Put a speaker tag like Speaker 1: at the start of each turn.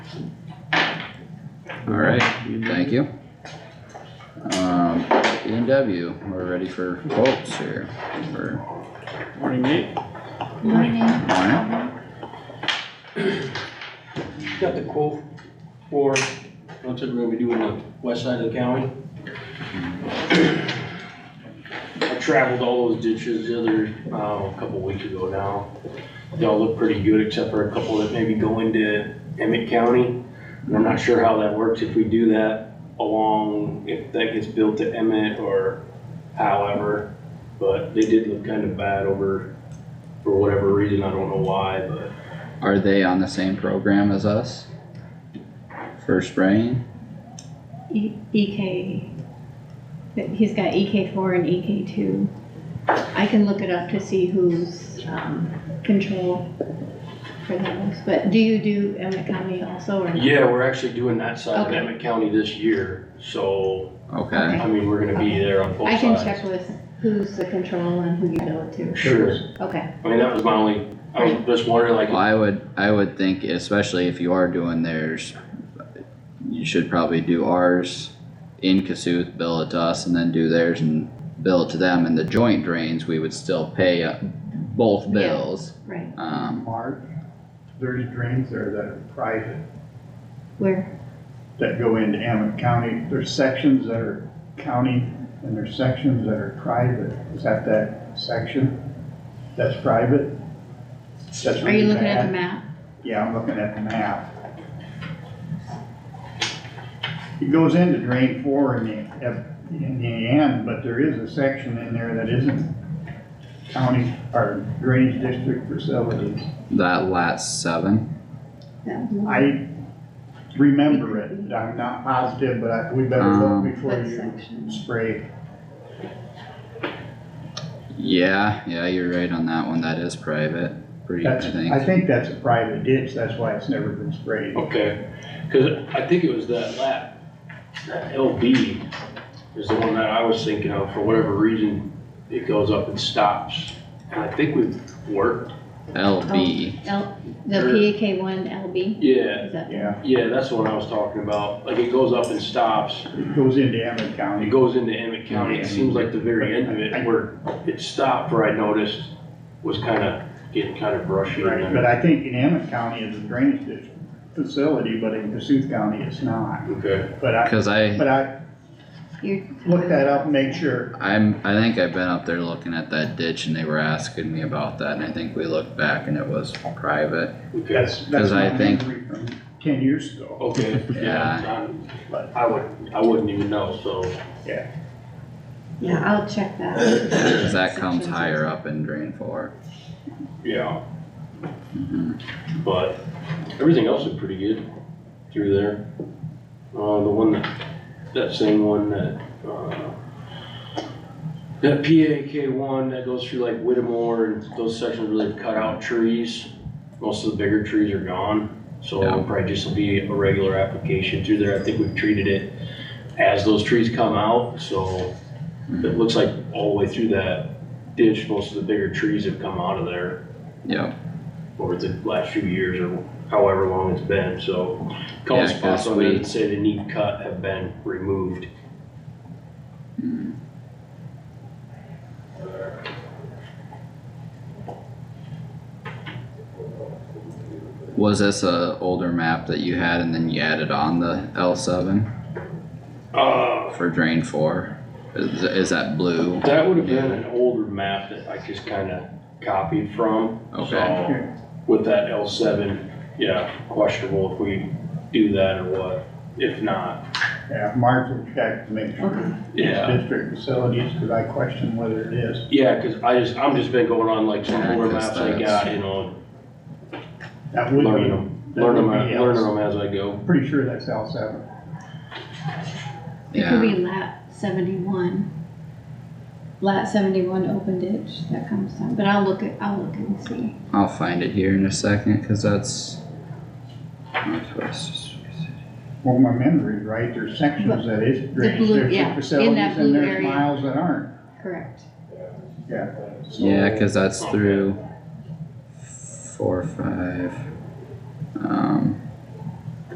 Speaker 1: Alright, thank you. Um, E and W, we're ready for quotes here for
Speaker 2: Morning, Nate.
Speaker 3: Morning.
Speaker 1: morning.
Speaker 4: Got the quote for, what's it, we're gonna be doing the west side of the county. I traveled all those ditches the other, uh, a couple weeks ago now. They all look pretty good except for a couple that maybe go into Emmett County. And I'm not sure how that works if we do that along, if that gets built to Emmett or however. But they did look kind of bad over, for whatever reason, I don't know why, but
Speaker 1: Are they on the same program as us? For spraying?
Speaker 3: E- EK, he's got EK four and EK two. I can look it up to see who's, um, control for those, but do you do Emmett County also or not?
Speaker 4: Yeah, we're actually doing that side of
Speaker 3: Okay.
Speaker 4: Emmett County this year, so,
Speaker 1: Okay,
Speaker 4: I mean, we're gonna be there on both
Speaker 3: I
Speaker 4: sides.
Speaker 3: can check with who's the control and who you bill it to.
Speaker 4: Sure,
Speaker 3: Okay,
Speaker 4: I mean, that was my only, I was just wondering
Speaker 1: well,
Speaker 4: like,
Speaker 1: I would, I would think especially if you are doing theirs, you should probably do ours in Cassuth, bill it to us and then do theirs and bill it to them and the joint drains, we would still pay uh, both
Speaker 3: Yeah.
Speaker 1: bills.
Speaker 3: right,
Speaker 1: Um,
Speaker 5: Mark, dirty drains there that are private,
Speaker 3: where,
Speaker 5: that go into Emmett County. There's sections that are county and there's sections that are private. Is that that section that's private? That's
Speaker 3: are you
Speaker 5: really
Speaker 3: looking at the
Speaker 5: bad?
Speaker 3: map?
Speaker 5: Yeah, I'm looking at the map. It goes into drain four in the, at- in the end, but there is a section in there that isn't county or drainage district facilities.
Speaker 1: that last seven.
Speaker 5: I remember it, I'm not positive, but I- we better
Speaker 1: Um,
Speaker 5: look before
Speaker 3: What
Speaker 5: you
Speaker 3: section?
Speaker 5: spray.
Speaker 1: Yeah, yeah, you're right on that one, that is private, pretty, I
Speaker 5: That's, I
Speaker 1: think,
Speaker 5: think that's a private ditch, that's why it's never been sprayed.
Speaker 4: okay, cause I think it was that lap, that LB is the one that I was thinking of, for whatever reason, it goes up and stops. And I think we've worked,
Speaker 1: LB,
Speaker 3: L, the
Speaker 4: Sure.
Speaker 3: PAK one LB,
Speaker 4: yeah,
Speaker 3: is that?
Speaker 5: Yeah,
Speaker 4: yeah, that's the one I was talking about, like, it goes up and stops,
Speaker 5: it goes into Emmett
Speaker 4: It
Speaker 5: County.
Speaker 4: goes into Emmett County, it seems like the very end of it, where it stopped, where I noticed, was kinda getting kinda brushy.
Speaker 5: Right, but I think in Emmett County is a drainage district facility, but in Cassuth County it's not.
Speaker 4: Okay,
Speaker 5: But I,
Speaker 1: cause I,
Speaker 5: but I
Speaker 3: You're-
Speaker 5: looked that up, and made sure,
Speaker 1: I'm, I think I've been up there looking at that ditch and they were asking me about that and I think we looked back and it was private.
Speaker 4: okay,
Speaker 5: that's, that's
Speaker 1: Because I
Speaker 5: my
Speaker 1: think-
Speaker 5: memory from ten years ago.
Speaker 4: okay, yeah,
Speaker 5: But-
Speaker 4: I I would, I wouldn't even know, so,
Speaker 3: Yeah, I'll check that.
Speaker 1: Cause that comes
Speaker 3: Sections.
Speaker 1: higher up in drain four.
Speaker 4: yeah,
Speaker 1: Mhm.
Speaker 4: but everything else is pretty good through there. Uh, the one that, that same one that, uh, that PAK one that goes through like Whittemore and those sections where they've cut out trees, most of the bigger trees are gone. So it'll
Speaker 1: Yeah.
Speaker 4: probably just be a regular application through there. I think we've treated it as those trees come out, so it looks like all the way through that ditch, most of the bigger trees have come out of there
Speaker 1: Yep,
Speaker 4: over the last few years or however long it's been, so. a Couple
Speaker 1: Yeah,
Speaker 4: spots
Speaker 1: 'cause
Speaker 4: on there
Speaker 1: we-
Speaker 4: that say they need cut have been removed.
Speaker 1: was this a older map that you had and then you added on the L seven
Speaker 4: Uh,
Speaker 1: for drain four? Is, is that blue?
Speaker 4: that would have been an older map that I just kinda copied from.
Speaker 1: Okay.
Speaker 4: So, With that L seven, yeah, questionable if we do that or what, if not,
Speaker 5: Yeah, Mark will check to make sure.
Speaker 3: Okay.
Speaker 4: yeah.
Speaker 5: district facilities, because I question whether it is.
Speaker 4: Yeah, cause I just, I'm just been going on like some
Speaker 1: Yeah,
Speaker 4: older
Speaker 1: 'cause
Speaker 4: maps I
Speaker 1: that's-
Speaker 4: got, you know,
Speaker 5: That would
Speaker 4: learning
Speaker 5: be,
Speaker 4: them,
Speaker 5: that
Speaker 4: learning
Speaker 5: would be
Speaker 4: them, learning
Speaker 5: else.
Speaker 4: them as I go.
Speaker 5: pretty sure that's L seven.
Speaker 3: It could
Speaker 1: Yeah,
Speaker 3: be lap seventy-one. Lap seventy-one open ditch that comes down, but I'll look at, I'll look and see.
Speaker 1: I'll find it here in a second, cause that's. Northwest.
Speaker 5: Well, my memory, right, there's sections that is drainage
Speaker 3: blue- yeah, in that
Speaker 5: district facilities
Speaker 3: blue
Speaker 5: and there's
Speaker 3: area.
Speaker 5: miles that aren't,
Speaker 3: Correct.
Speaker 5: yeah. So-
Speaker 1: Yeah, cause that's
Speaker 4: Okay.
Speaker 1: through four, five. Um,